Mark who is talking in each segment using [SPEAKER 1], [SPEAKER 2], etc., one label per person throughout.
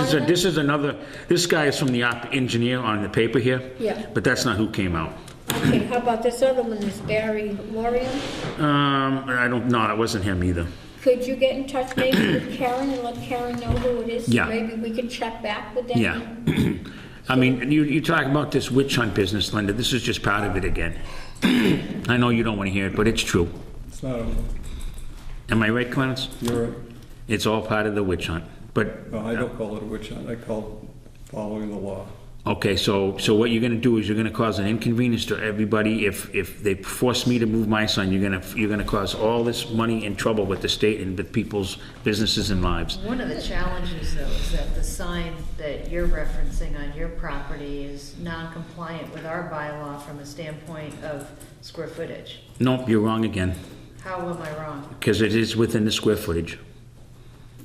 [SPEAKER 1] is, a- this is another, this guy is from the op engineer on the paper here.
[SPEAKER 2] Yeah.
[SPEAKER 1] But that's not who came out.
[SPEAKER 2] Okay, how about this other one, this Barry Lorian?
[SPEAKER 1] Um, I don't, no, it wasn't him either.
[SPEAKER 2] Could you get in touch maybe with Karen and let Karen know who it is?
[SPEAKER 1] Yeah.
[SPEAKER 2] Maybe we can check back with them?
[SPEAKER 1] Yeah. I mean, you, you talk about this witch hunt business, Linda, this is just part of it again. I know you don't want to hear it, but it's true.
[SPEAKER 3] It's not, over.
[SPEAKER 1] Am I right, Clarence?
[SPEAKER 3] you're right.
[SPEAKER 1] It's all part of the witch hunt. But,
[SPEAKER 3] No, I don't call it a witch hunt, I call it following the law.
[SPEAKER 1] okay, so, so what you're gonna do is you're gonna cause an inconvenience to everybody. If, if they force me to move my son, you're gonna, you're gonna cause all this money and trouble with the state and with people's businesses and lives.
[SPEAKER 4] One of the challenges, though, is that the sign that you're referencing on your property is non-compliant with our bylaw from a standpoint of square footage.
[SPEAKER 1] Nope, you're wrong again,
[SPEAKER 4] How am I wrong?
[SPEAKER 1] because it is within the square footage.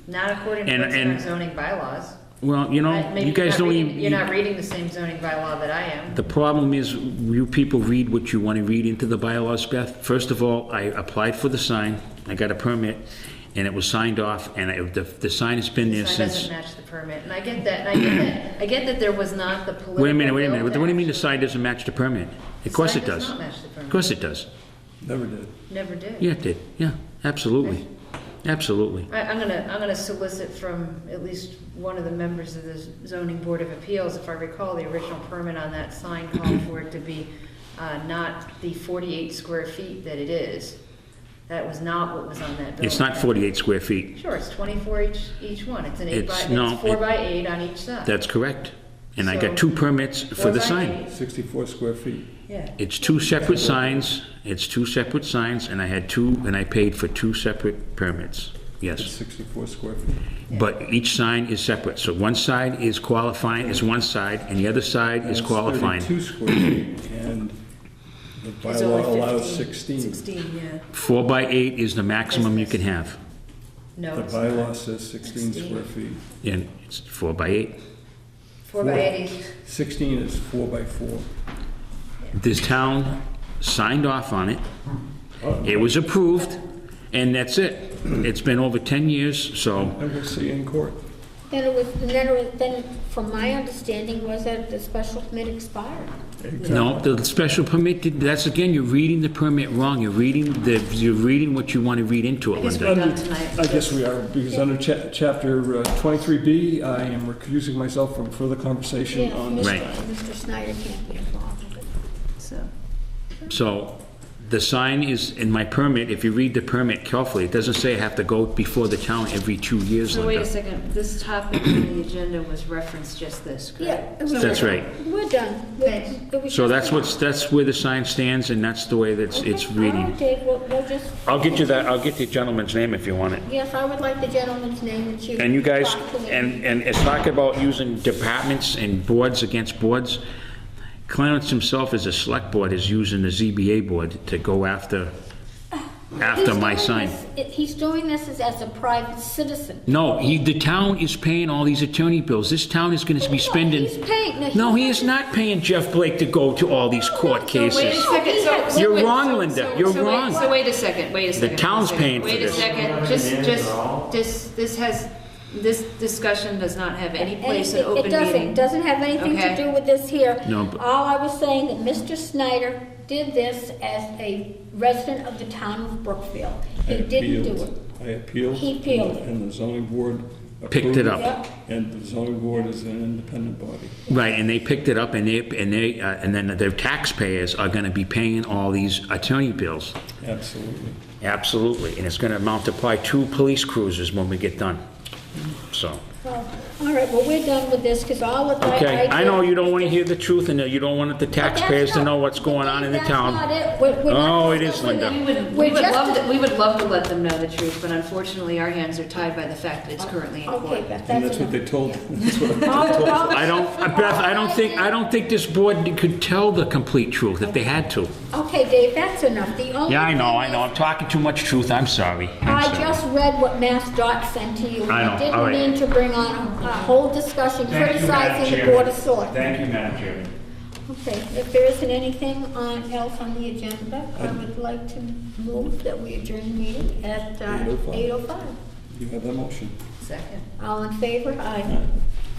[SPEAKER 4] Not according to
[SPEAKER 1] And-
[SPEAKER 4] what's in our
[SPEAKER 1] and-
[SPEAKER 4] zoning bylaws.
[SPEAKER 1] Well, you know,
[SPEAKER 4] Right? Maybe
[SPEAKER 1] you
[SPEAKER 4] you're
[SPEAKER 1] guys
[SPEAKER 4] not
[SPEAKER 1] don't
[SPEAKER 4] reading-
[SPEAKER 1] even.
[SPEAKER 4] You're not reading the same zoning bylaw that I am.
[SPEAKER 1] The problem is, you people read what you want to read into the bylaws, Beth. First of all, I applied for the sign, I got a permit, and it was signed off, and I- the, the sign has been
[SPEAKER 4] The
[SPEAKER 1] there
[SPEAKER 4] sign
[SPEAKER 1] since...
[SPEAKER 4] doesn't match the permit, and I get that, and I get that. I get that there was not the political.
[SPEAKER 1] Wait a minute, wait a
[SPEAKER 4] will
[SPEAKER 1] minute, what
[SPEAKER 4] to
[SPEAKER 1] do you mean the
[SPEAKER 4] actually-
[SPEAKER 1] sign doesn't match the permit? Of course
[SPEAKER 4] sign
[SPEAKER 1] it
[SPEAKER 4] does
[SPEAKER 1] does.
[SPEAKER 4] not match the permit.
[SPEAKER 1] Of course it does.
[SPEAKER 3] Never did.
[SPEAKER 4] Never did.
[SPEAKER 1] Yeah, it did, yeah, absolutely, absolutely.
[SPEAKER 4] I, I'm gonna, I'm gonna solicit from at least one of the members of the zoning board of appeals, if I recall, the original permit on that sign called for it to be, uh, not the forty-eight square feet that it is. That was not what was on that building.
[SPEAKER 1] It's not 48 square feet,
[SPEAKER 4] Sure, it's twenty-four each, each one, it's an eight by,
[SPEAKER 1] It's- no,
[SPEAKER 4] it's four
[SPEAKER 1] it-
[SPEAKER 4] by eight on each side.
[SPEAKER 1] that's correct. And I got
[SPEAKER 4] So-
[SPEAKER 1] two permits for
[SPEAKER 4] Four
[SPEAKER 1] the
[SPEAKER 4] by
[SPEAKER 1] sign.
[SPEAKER 4] eight,
[SPEAKER 3] 64 square feet.
[SPEAKER 4] Yeah,
[SPEAKER 1] It's two separate signs, it's two separate signs, and I had two, and I paid for two separate permits,
[SPEAKER 3] It's
[SPEAKER 1] yes.
[SPEAKER 3] 64 square feet.
[SPEAKER 1] But each sign is separate, so one side is qualifying, is one side, and the other side is qualifying.
[SPEAKER 3] 32 square feet, and the
[SPEAKER 5] It's only
[SPEAKER 3] bylaw allows
[SPEAKER 5] 15,
[SPEAKER 3] 16.
[SPEAKER 5] 16, yeah.
[SPEAKER 1] Four by eight is the maximum you can have,
[SPEAKER 4] no,
[SPEAKER 3] The
[SPEAKER 4] it's not.
[SPEAKER 3] bylaw says 16 square feet.
[SPEAKER 1] and it's four by eight.
[SPEAKER 4] four by eight each.
[SPEAKER 3] 16 is four by four.
[SPEAKER 1] This town signed off on it, it was approved, and that's it. It's been over 10 years, so,
[SPEAKER 3] And we'll see in court.
[SPEAKER 2] Then it was, and then it was, then from my understanding was that the special permit expired.
[SPEAKER 1] no, the special permit, did- that's again, you're reading the permit wrong, you're reading, the you're reading what you want to read into it,
[SPEAKER 4] guess
[SPEAKER 1] Linda.
[SPEAKER 4] We're done tonight.
[SPEAKER 3] I guess we are, because under cha- chapter uh, 23B, I am recusing myself from further conversation
[SPEAKER 2] Yeah,
[SPEAKER 3] on
[SPEAKER 2] Mr.
[SPEAKER 3] this.
[SPEAKER 1] Right.
[SPEAKER 2] Mr. Snyder can't be involved with it.
[SPEAKER 4] so.
[SPEAKER 1] So the sign is in my permit, if you read the permit carefully, it doesn't say I have to go before the town every two years,
[SPEAKER 4] So wait a
[SPEAKER 1] Linda.
[SPEAKER 4] second, this topic on the agenda was referenced just this, correct?
[SPEAKER 2] Yeah. it was-
[SPEAKER 1] That's right.
[SPEAKER 2] We're done. We- it was
[SPEAKER 1] So
[SPEAKER 2] just-
[SPEAKER 1] that's what's, that's where the sign stands and that's the way that's,
[SPEAKER 2] Okay,
[SPEAKER 1] it's
[SPEAKER 2] All right,
[SPEAKER 1] reading.
[SPEAKER 2] Dave, we'll, we'll just,
[SPEAKER 1] I'll get you that, I'll get the gentleman's name if you want it.
[SPEAKER 2] yes, I would like the gentleman's name and you.
[SPEAKER 1] And you guys,
[SPEAKER 2] talk to him.
[SPEAKER 1] and, and it's talk about using departments and boards against boards. Clarence himself as a select board is using the ZBA board to go after, after
[SPEAKER 2] He's
[SPEAKER 1] my
[SPEAKER 2] doing
[SPEAKER 1] sign.
[SPEAKER 2] this- He's doing this as- as a private citizen.
[SPEAKER 1] No, he, the town is paying all these attorney bills. This town is gonna be spending.
[SPEAKER 2] He's paying. No, he's
[SPEAKER 1] No, he is not paying Jeff Blake to go to all these court
[SPEAKER 5] Wait a
[SPEAKER 1] cases.
[SPEAKER 5] second, so- so.
[SPEAKER 1] You're
[SPEAKER 5] wait-
[SPEAKER 1] wrong,
[SPEAKER 5] so-
[SPEAKER 1] Linda.
[SPEAKER 5] so-
[SPEAKER 1] You're
[SPEAKER 5] so wait-
[SPEAKER 1] wrong.
[SPEAKER 5] So wait a second, wait a second.
[SPEAKER 1] town's
[SPEAKER 5] wait a second.
[SPEAKER 1] paying for
[SPEAKER 5] Wait a
[SPEAKER 1] this.
[SPEAKER 5] second, just, just, this, this has, this discussion does not have any place in
[SPEAKER 2] Anything-
[SPEAKER 5] open
[SPEAKER 2] It doesn't,
[SPEAKER 5] meeting.
[SPEAKER 2] doesn't have anything to
[SPEAKER 5] Okay.
[SPEAKER 2] do with this here.
[SPEAKER 1] No, but-
[SPEAKER 2] All I was saying that Mr. Snyder did this as a resident of the town of Brookfield.
[SPEAKER 3] I
[SPEAKER 2] He didn't do
[SPEAKER 3] appealed.
[SPEAKER 2] it.
[SPEAKER 3] I appealed.
[SPEAKER 2] He appealed.
[SPEAKER 3] And the zoning board.
[SPEAKER 1] Picked it
[SPEAKER 3] approved
[SPEAKER 1] up.
[SPEAKER 2] Yep.
[SPEAKER 3] And the zoning board is an independent body.
[SPEAKER 1] Right, and they picked it up and they, and they, uh, and then their taxpayers are gonna be paying all these attorney bills.
[SPEAKER 3] Absolutely.
[SPEAKER 1] Absolutely, and it's gonna amount to probably two police cruisers when we get done, so.
[SPEAKER 2] Well, All right, well, we're done with this because all of that.
[SPEAKER 1] Okay, I know
[SPEAKER 2] did-
[SPEAKER 1] you don't wanna hear the truth and you don't want the
[SPEAKER 2] But that's
[SPEAKER 1] taxpayers to
[SPEAKER 2] not-
[SPEAKER 1] know what's going on in the
[SPEAKER 2] that's not
[SPEAKER 1] town.
[SPEAKER 2] it. We're- we're not
[SPEAKER 1] Oh, it is,
[SPEAKER 2] discussing
[SPEAKER 1] Linda.
[SPEAKER 2] that.
[SPEAKER 4] We would, we
[SPEAKER 2] We're
[SPEAKER 4] would love
[SPEAKER 2] just.
[SPEAKER 4] to, we would love to let them know the truth, but unfortunately, our hands are tied by the fact that it's currently in
[SPEAKER 2] Okay,
[SPEAKER 4] court.
[SPEAKER 2] Beth,
[SPEAKER 3] And
[SPEAKER 2] that's
[SPEAKER 3] that's what
[SPEAKER 2] enough.
[SPEAKER 3] they told,
[SPEAKER 1] I
[SPEAKER 2] I
[SPEAKER 1] don't, Beth, I don't think, I don't think this board could tell the complete truth if they had to.
[SPEAKER 2] Okay, Dave, that's enough. The only.
[SPEAKER 1] Yeah, I know,
[SPEAKER 2] thing
[SPEAKER 1] I know,
[SPEAKER 2] is-
[SPEAKER 1] I'm talking too much truth, I'm sorry. I'm
[SPEAKER 2] I
[SPEAKER 1] sorry.
[SPEAKER 2] just read what Mass Dot sent to you. and
[SPEAKER 1] I know, all right.
[SPEAKER 2] didn't mean to bring on a a whole discussion
[SPEAKER 6] Thank you, Madam
[SPEAKER 2] criticizing the
[SPEAKER 6] Chairman.
[SPEAKER 2] Board of Selectmen.
[SPEAKER 6] Thank you, Madam Chairman.
[SPEAKER 2] Okay, if there isn't anything on, else on the agenda, I would like to move that we adjourn the meeting at uh,
[SPEAKER 3] 8:05.
[SPEAKER 2] 8:05.
[SPEAKER 3] you have that motion.
[SPEAKER 4] Second.
[SPEAKER 2] All in favor? Aye.